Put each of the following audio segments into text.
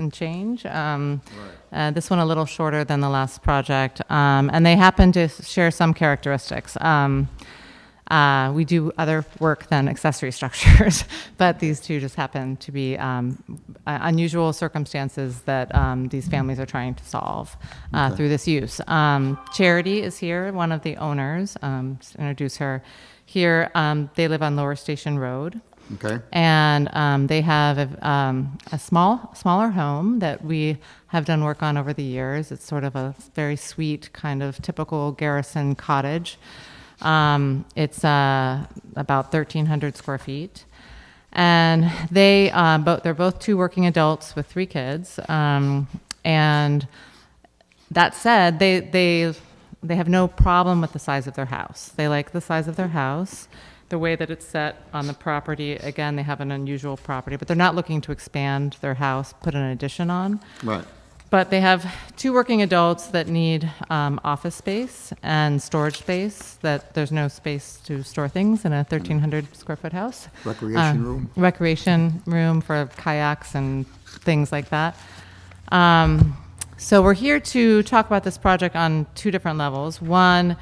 and change. Um, uh, This one a little shorter than the last project, Um, and they happen to share some characteristics. Um, uh, We do other work than accessory structures, but these two just happen to be um, uh, unusual circumstances that um, these families are trying to solve uh, through this use. Um, Charity is here, one of the owners, um, just introduce her here. Um, They live on Lower Station Road. Okay, And um, they have a, um, a small, smaller home that we have done work on over the years. It's sort of a very sweet, kind of typical garrison cottage. Um, it's uh, about 1,300 square feet. And they, uh, both, they're both two working adults with three kids. Um, and that said, they they they have no problem with the size of their house. They like the size of their house, the way that it's set on the property. Again, they have an unusual property, but they're not looking to expand their house, put an addition on. right. But they have two working adults that need um, office space and storage space. That there's no space to store things in a 1,300 square foot house. Mm. Recreation Uh, room? Recreation room for kayaks and things like that. Um, so we're here to talk about this project on two different levels. One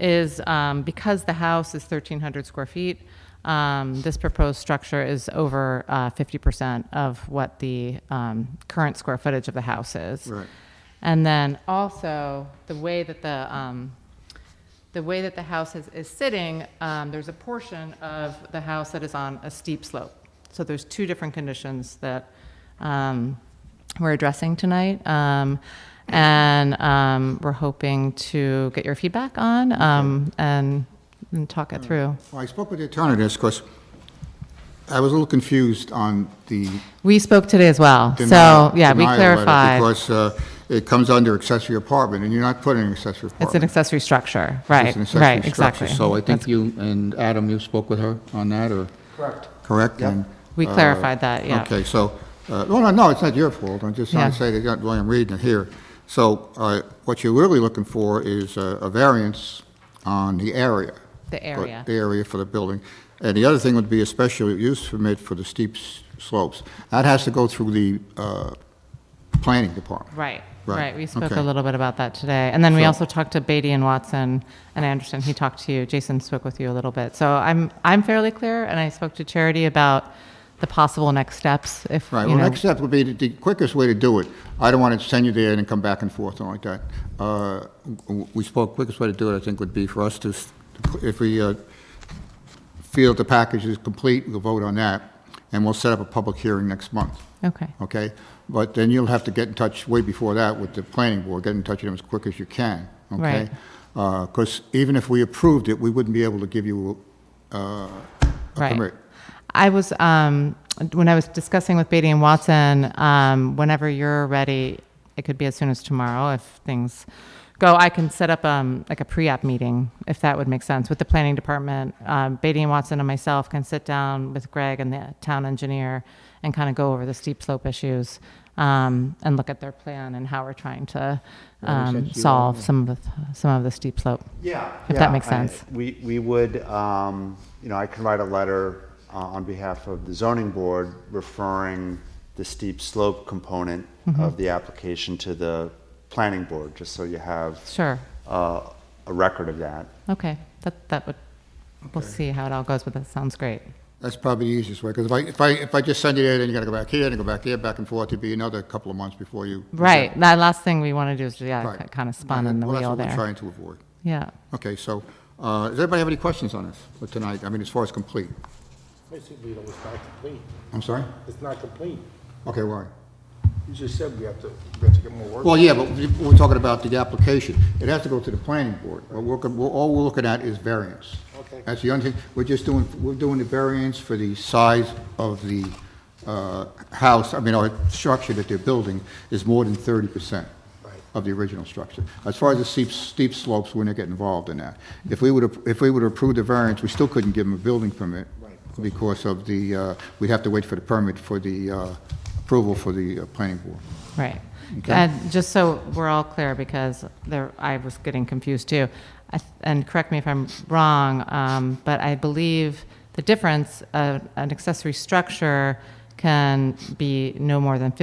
is um, because the house is 1,300 square feet. Um, this proposed structure is over uh, 50% of what the um, current square footage of the house is. Right. And then also the way that the um, the way that the house is, is sitting, um, there's a portion of the house that is on a steep slope. So there's two different conditions that um, we're addressing tonight. Um, and um, we're hoping to get your feedback on um, and, and talk it through. Well, I spoke with the attorney this, because I was a little confused on the We spoke today as well. denial. so, yeah, we denial letter, clarified. Because uh, it comes under accessory apartment, and you're not putting an accessory apartment. it's an accessory structure. Right. It's an accessory right. structure. Exactly. So I think That's- you and Adam, you spoke with her on that, or? Correct. Correct? and, we uh, clarified that. Yeah. Okay, so, uh, no, no, no, it's not your fault, I'm just trying to Yeah. say that, that's why I'm reading it here. So uh, what you're really looking for is uh, a variance on the area. The area. The area for the building. And the other thing would be a special use permit for the steep s- slopes. That has to go through the uh, planning department. Right, Right, right. We spoke okay. a little bit about that today. And then we So- also talked to Beatty and Watson, and I understand he talked to you, Jason spoke with you a little bit. So I'm, I'm fairly clear, and I spoke to Charity about the possible next steps if, Right, you well, know. next step would be, the- the quickest way to do it, I don't want to send you there and then come back and forth and like that. Uh, w- We spoke, quickest way to do it, I think, would be for us to, s- if we uh, feel the package is complete, we'll vote on that, and we'll set up a public hearing next month, Okay, okay? But then you'll have to get in touch way before that with the planning board, get in touch with them as quick as you can, okay? Right. Because even if we approved it, we wouldn't be able to give you uh, a right. permit. I was, um, when I was discussing with Beatty and Watson, um, whenever you're ready, it could be as soon as tomorrow if things go. I can set up um, like a pre-app meeting if that would make sense with the planning department. Um, Beatty and Watson and myself can sit down with Greg and the town engineer and kind of go over the steep slope issues um, and look at their plan and how we're trying to um, solve some of the, some of the steep slope. Yeah. If that yeah, makes I- sense. We, we would, um, you know, I can write a letter uh, on behalf of the zoning board referring the steep slope component Mm-hmm. of the application to the planning board, just so you have Sure. uh, a record of that. Okay. That that would. We'll see how it all goes, but that sounds great. That's probably the easiest way, because if I, if I, if I just send you there, then you gotta go back here, and go back there, back and forth, it'd be another couple of months before you. Right. That last thing we want to do is, yeah, Right. kind of spun in the Well, wheel there. That's what we're trying to avoid. Yeah. Okay, so, uh, does everybody have any questions on this for tonight? I mean, as far as complete? Basically, though, it's not complete. I'm sorry? It's not complete. Okay, why? You just said we have to, we have to get more work. Well, yeah, but we- we're talking about the application. It has to go to the planning board. What we're, co- we're- all we're looking at is variance. Okay. That's the only thing, we're just doing, we're doing the variance for the size of the uh, house, I mean, or structure that they're building is more than thirty percent Right. of the original structure. As far as the steep, steep slopes, we're not getting involved in that. If we would, ap- if we would approve the variance, we still couldn't give them a building permit Right. because of the, uh, we'd have to wait for the permit for the uh, approval for the uh, planning board. Right. Okay. And just so we're all clear, because there, I was getting confused too. I th- And correct me if I'm wrong, um, but I believe the difference, uh, an accessory structure can be no more than